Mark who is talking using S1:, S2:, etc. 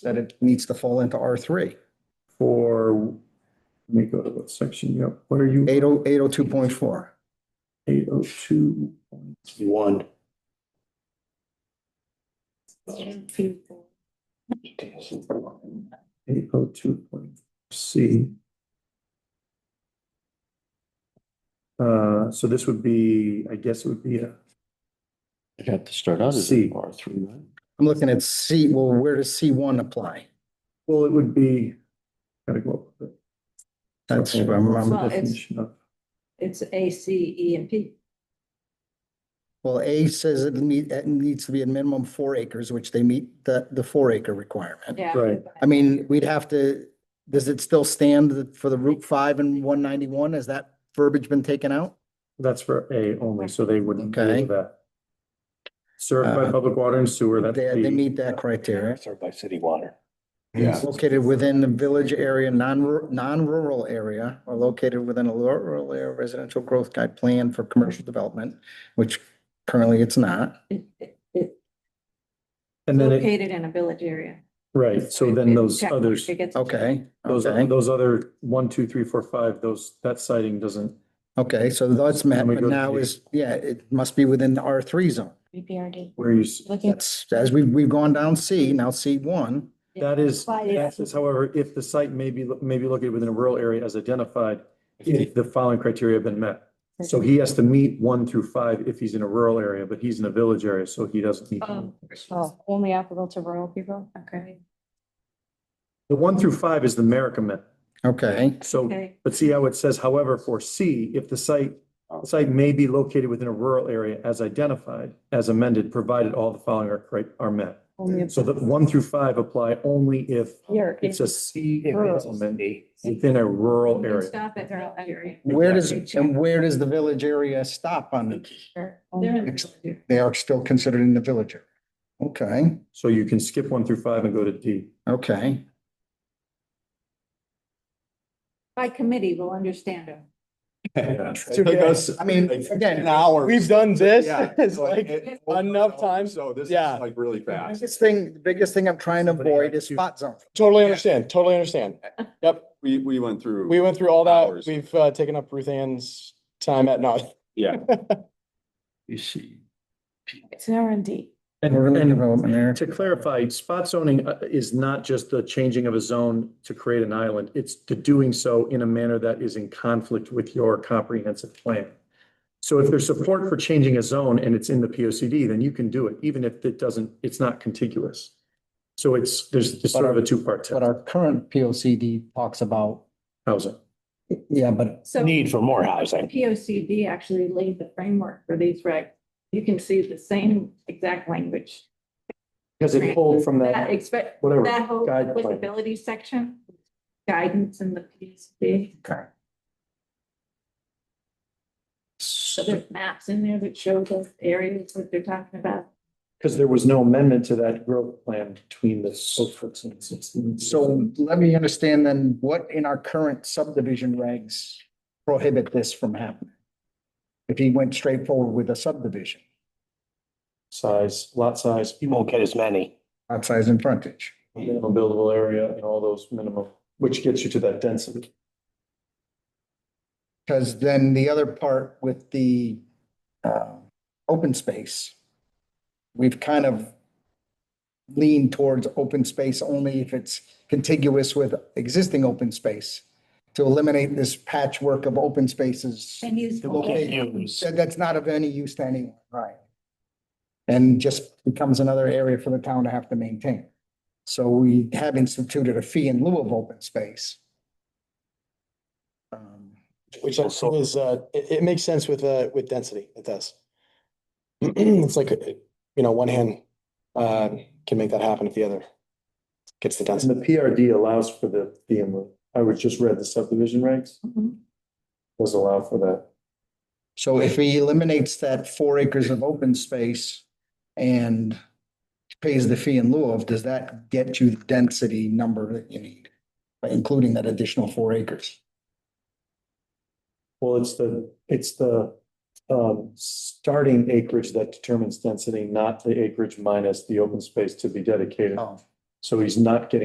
S1: that it needs to fall into R three.
S2: for, let me go to what section, yep, what are you,
S1: Eight oh, eight oh two point four.
S2: eight oh two point one? Eight oh two point C. Uh, so this would be, I guess it would be a,
S3: It had to start out as
S2: C.
S3: R three, right?
S1: I'm looking at C, well, where does C one apply?
S2: well, it would be, gotta go up. with it.
S1: That's, what I'm- I'm-
S4: Well, it's-
S2: Definition of-
S4: It's A, C, E, and P.
S1: well, A says it need, it needs to be a minimum four acres, which they meet the, the four acre requirement.
S4: Yeah.
S2: Right.
S1: I mean, we'd have to, does it still stand that for the Route five and one ninety-one? Has that verbiage been taken out?
S2: That's for A only, so they wouldn't do
S1: Okay.
S2: that. Served by
S1: Uh,
S2: public water and sewer, that's
S1: They, they
S2: B.
S1: meet that criteria.
S3: Start by city water.
S1: It's Located within the village area, non-ru- non-rural area, or located within a rural area residential growth guide plan for commercial development, which currently it's not.
S4: It- it- It's
S2: And then it,
S4: located in a village area.
S2: right, so then
S4: It-
S2: those
S4: check-
S2: others,
S4: it gets-
S1: Okay,
S2: those,
S1: okay,
S2: those other one, two, three, four, five, those, that siding doesn't,
S1: okay, so that's met,
S2: Can we
S1: but
S2: go to
S1: now
S2: the-
S1: is, yeah, it must be within the R three zone.
S5: BPRD.
S2: where you, s-
S5: Looking,
S1: That's, as we, we've gone down C, now C one.
S2: that is,
S5: But it's-
S2: that is, however, if the site may be, lo- may be located within a rural area as identified, if the following criteria have been met. So he has to meet one through five if he's in a rural area, but he's in a village area, so he doesn't meet.
S4: Oh,
S5: oh, only applicable to rural people?
S4: okay.
S2: The one through five is the Merrickamet,
S1: Okay,
S2: so
S4: Okay.
S2: But see how it says, however, for C, if the site, the site may be located within a rural area as identified, as amended, provided all the following are correct, are met.
S5: Only
S2: So that one through five apply only if
S5: here.
S2: it's a C
S5: Rural.
S2: element within a rural area.
S4: Stop at rural area.
S1: where does, and where does the village area stop on it?
S5: They're
S4: They're in the
S5: only-
S4: village area.
S1: They are still considered in the village. area. Okay,
S2: So you can skip one through five and go to D.
S1: okay,
S4: By committee, we'll understand them.
S6: Took us,
S1: I mean, again,
S6: an hour.
S7: We've done this,
S6: Yeah,
S7: it's
S6: like,
S7: like,
S6: it-
S7: enough time.
S6: So this is
S7: Yeah.
S6: like really fast.
S1: biggest thing, the biggest thing I'm trying to
S2: Somebody
S1: avoid
S2: had
S1: is
S2: to-
S1: spot zone.
S7: totally understand, totally understand. Yep,
S6: We, we went through.
S7: we went through all that,
S6: Hours.
S7: we've uh, taken up Ruth Ann's time at night.
S6: Yeah.
S3: You see.
S5: It's now in D.
S2: And,
S1: We're really
S2: and
S1: development there.
S2: to clarify, spot zoning uh, is not just the changing of a zone to create an island. It's to doing so in a manner that is in conflict with your comprehensive plan. So if there's support for changing a zone and it's in the P O C D, then you can do it, even if it doesn't, it's not contiguous. So it's, there's just sort of a two-part
S1: But
S2: test,
S1: our current P O C D talks about,
S2: housing.
S1: yeah, but
S4: So
S3: Need for more housing.
S4: P O C D actually laid the framework for these regs. You can see the same exact language.
S2: Because it pulled from
S4: That
S2: that,
S4: expect,
S2: whatever.
S4: that whole
S2: guideline.
S4: applicability section, guidance in the P O C D. So there's maps in there that show those areas that they're talking about.
S2: Because there was no amendment to that growth plan between the. So
S1: so let me understand then what in our current subdivision regs prohibit this from happening? If he went straight forward with a subdivision,
S2: size, lot size,
S3: You won't get as many.
S1: lot size and frontage.
S2: minimum buildable area and all those minimum, which gets you to that density.
S1: Because then the other part with the uh, open space, we've kind of leaned towards open space only if it's contiguous with existing open space to eliminate this patchwork of open spaces.
S4: And use.
S3: use.
S1: that- That's not of any use to anyone, right? And just becomes another area for the town to have to maintain. So we have instituted a fee in lieu of open space. Um,
S7: Which I
S3: Also-
S7: think is, uh, it, it makes sense with, uh, with density, it does. It's like, uh, you know, one hand, uh, can make that happen if the other gets the
S2: And
S7: density.
S2: the PRD allows for the DM, I was just read the subdivision regs,
S4: Mm-hmm.
S2: does allow for that.
S1: So if he eliminates that four acres of open space and pays the fee in lieu of, does that get you the density number that you need? By including that additional four acres?
S2: Well, it's the, it's the um starting acreage that determines density, not the acreage minus the open space to be dedicated.
S1: Oh,
S2: So he's not getting